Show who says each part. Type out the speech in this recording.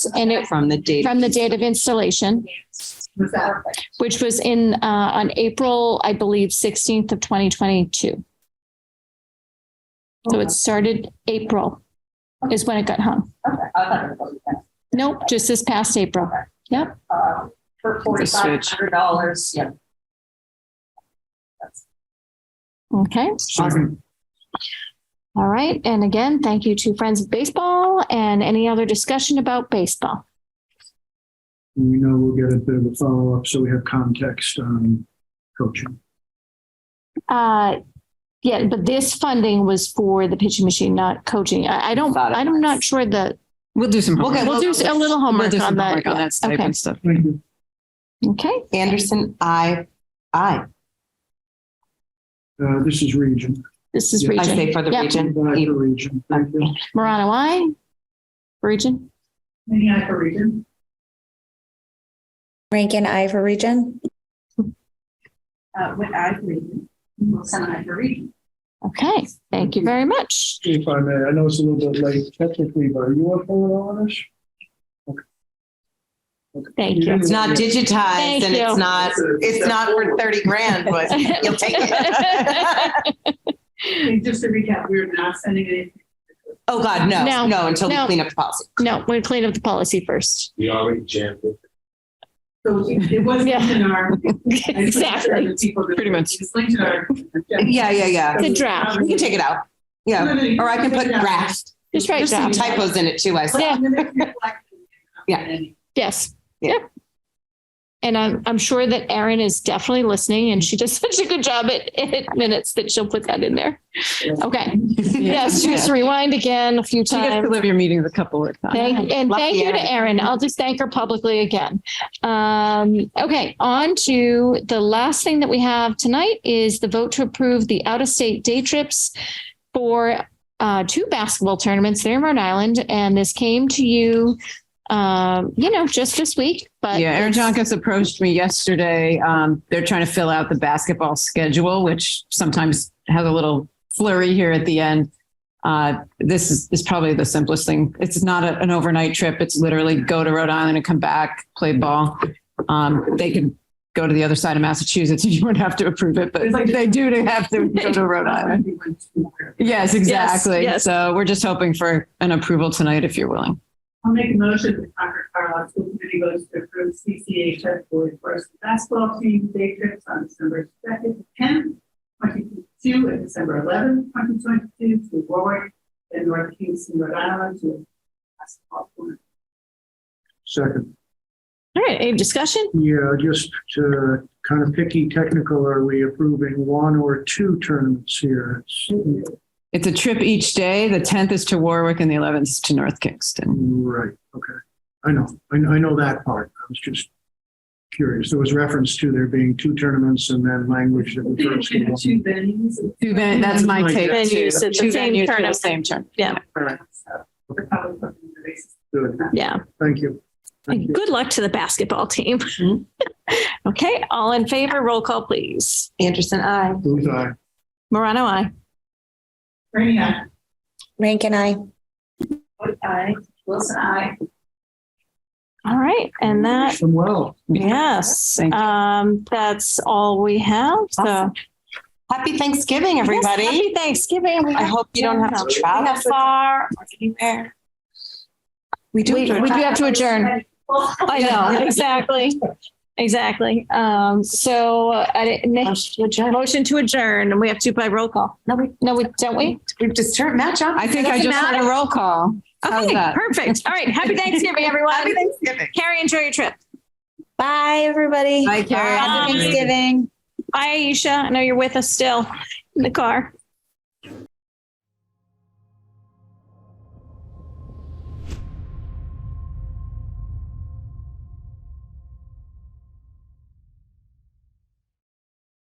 Speaker 1: and it,
Speaker 2: from the date.
Speaker 1: from the date of installation, which was in, uh, on April, I believe, sixteenth of twenty twenty-two. So it started April is when it got hung.
Speaker 3: Uh,
Speaker 1: Nope, just this past April.
Speaker 3: uh, For
Speaker 2: The
Speaker 3: forty-five
Speaker 2: switch.
Speaker 3: hundred dollars, yeah.
Speaker 1: Okay.
Speaker 2: Awesome.
Speaker 1: All right. And again, thank you to Friends of Baseball and any other discussion about baseball.
Speaker 4: We know we'll get a bit of a follow-up, so we have context on coaching.
Speaker 1: Uh, yeah, but this funding was for the pitching machine, not coaching. I, I don't,
Speaker 2: Thought it
Speaker 1: I'm
Speaker 2: was.
Speaker 1: not sure that,
Speaker 2: We'll do some.
Speaker 1: We'll get-
Speaker 2: homework.
Speaker 1: we'll do a little
Speaker 2: We'll
Speaker 1: homework
Speaker 2: do some
Speaker 1: on that.
Speaker 2: homework On that type
Speaker 1: Okay.
Speaker 2: of stuff.
Speaker 4: Thank you.
Speaker 1: okay.
Speaker 5: Anderson, I, I,
Speaker 4: Uh, this is region.
Speaker 1: This is
Speaker 4: Yeah. I
Speaker 5: I
Speaker 1: region.
Speaker 5: say for the
Speaker 1: Yep.
Speaker 5: region.
Speaker 4: Back to region. Thank you.
Speaker 1: Marana, why? Region?
Speaker 3: Any other reason?
Speaker 6: Rankin I for region.
Speaker 3: Uh, what I reason? We'll send it to reading.
Speaker 1: Okay, thank you very much.
Speaker 4: If I may, I know it's a little bit late technically, but are you up for it on this? Okay. Okay.
Speaker 1: Thank you.
Speaker 5: It's not digitized
Speaker 1: Thank
Speaker 5: and
Speaker 1: you.
Speaker 5: it's not, it's not for thirty grand, but you'll take it.
Speaker 3: And just to recap, we're not sending it.
Speaker 5: Oh, God,
Speaker 1: No,
Speaker 5: no, no, until we
Speaker 1: no.
Speaker 5: clean up the policy.
Speaker 1: No, we're clean up the policy first.
Speaker 7: We already jammed it.
Speaker 3: So it wasn't
Speaker 1: Yeah.
Speaker 3: in our.
Speaker 1: Exactly.
Speaker 2: Pretty much.
Speaker 3: It's linked to our.
Speaker 5: Yeah, yeah, yeah.
Speaker 1: The draft.
Speaker 5: We can take it out. Yeah, or I can put draft.
Speaker 1: Just right
Speaker 5: There's some
Speaker 1: draft.
Speaker 5: typos in it too, I see.
Speaker 1: Yeah.
Speaker 5: Yeah.
Speaker 1: Yes.
Speaker 5: Yeah.
Speaker 1: Yep. And I'm, I'm sure that Erin is definitely listening and she does such a good job at, at minutes that she'll put that in there. Okay. Yes, just rewind again a few
Speaker 2: She gets
Speaker 1: times.
Speaker 2: to live your meetings a couple of times.
Speaker 1: Thank, and
Speaker 5: Lucky
Speaker 1: thank you to Erin. I'll just thank her publicly again. Um, okay, on to the last thing that we have tonight is the vote to approve the out-of-state day trips for uh, two basketball tournaments there in Rhode Island, and this came to you, um, you know, just this week, but
Speaker 2: Yeah, Aaron
Speaker 1: it's-
Speaker 2: Jonkus approached me yesterday. Um, they're trying to fill out the basketball schedule, which sometimes has a little flurry here at the end. Uh, this is, is probably the simplest thing. It's not a- an overnight trip. It's literally go to Rhode Island and come back, play ball. Um, they can go to the other side of Massachusetts and you wouldn't have to approve it, but
Speaker 3: It's like-
Speaker 2: they do to have to go to Rhode Island. Yes, exactly.
Speaker 1: yes.
Speaker 2: So we're just hoping for an approval tonight if you're willing.
Speaker 3: I'll make a motion that Concord Carlisle School Committee votes to approve CCHS Boys First Basketball Team day trips on December second, tenth, twenty-two, and December eleventh, twenty twenty-two, to Warwick and North Kingston, Rhode Island, to a basketball tournament.
Speaker 4: Second,
Speaker 1: All right, any discussion?
Speaker 4: yeah, just to kind of picky technical, are we approving one or two tournaments here? It's-
Speaker 2: It's a trip each day. The 10th is to Warwick and the 11th is to North Kingston.
Speaker 4: Right, okay. I know, I, I know that part. I was just curious. There was reference to there being two tournaments and then language that
Speaker 3: We
Speaker 4: refers to
Speaker 3: have
Speaker 4: one.
Speaker 3: two venues.
Speaker 2: Two ven-
Speaker 1: Mm-hmm.
Speaker 2: that's my
Speaker 4: Like
Speaker 2: take.
Speaker 4: that.
Speaker 2: too.
Speaker 1: Venues at the
Speaker 2: Two
Speaker 1: same
Speaker 2: venues for the
Speaker 1: tournament.
Speaker 2: Same turn.
Speaker 1: Yeah.
Speaker 3: So we're probably looking at basis.
Speaker 4: Good,
Speaker 1: Yeah.
Speaker 4: thank you. Thank you.
Speaker 1: Good luck to the basketball team.
Speaker 2: Mhm.
Speaker 1: Okay, all in favor, roll call, please.
Speaker 5: Anderson, I.
Speaker 4: Booth, aye.
Speaker 1: Morano, I.
Speaker 3: Ernie, I.
Speaker 6: Rankin I.
Speaker 3: Wood, I. Wilson, I.
Speaker 1: All right, and that
Speaker 4: Wish them well.
Speaker 1: Yes,
Speaker 2: Thank you.
Speaker 1: um, that's all we have, so.
Speaker 5: Awesome. Happy Thanksgiving, everybody.
Speaker 1: Yes, happy Thanksgiving. We
Speaker 5: I
Speaker 1: have-
Speaker 5: hope you don't have to travel far or anywhere. We do.
Speaker 1: We, we do have to adjourn. I know, exactly, exactly. Um, so, I didn't- Nick, motion to adjourn, and we have to by roll call. No, we. No, we, don't we?
Speaker 5: We've just turned match up.
Speaker 2: I think I just had a roll call. How's
Speaker 1: Okay,
Speaker 2: that?
Speaker 1: perfect. All right, happy Thanksgiving, everyone.
Speaker 5: Happy Thanksgiving.
Speaker 1: Carrie, enjoy your trip.
Speaker 6: Bye, everybody.
Speaker 2: Bye, Carrie.
Speaker 1: Um,
Speaker 6: Happy Thanksgiving.
Speaker 1: Bye, Aisha, I know you're with us still in the car.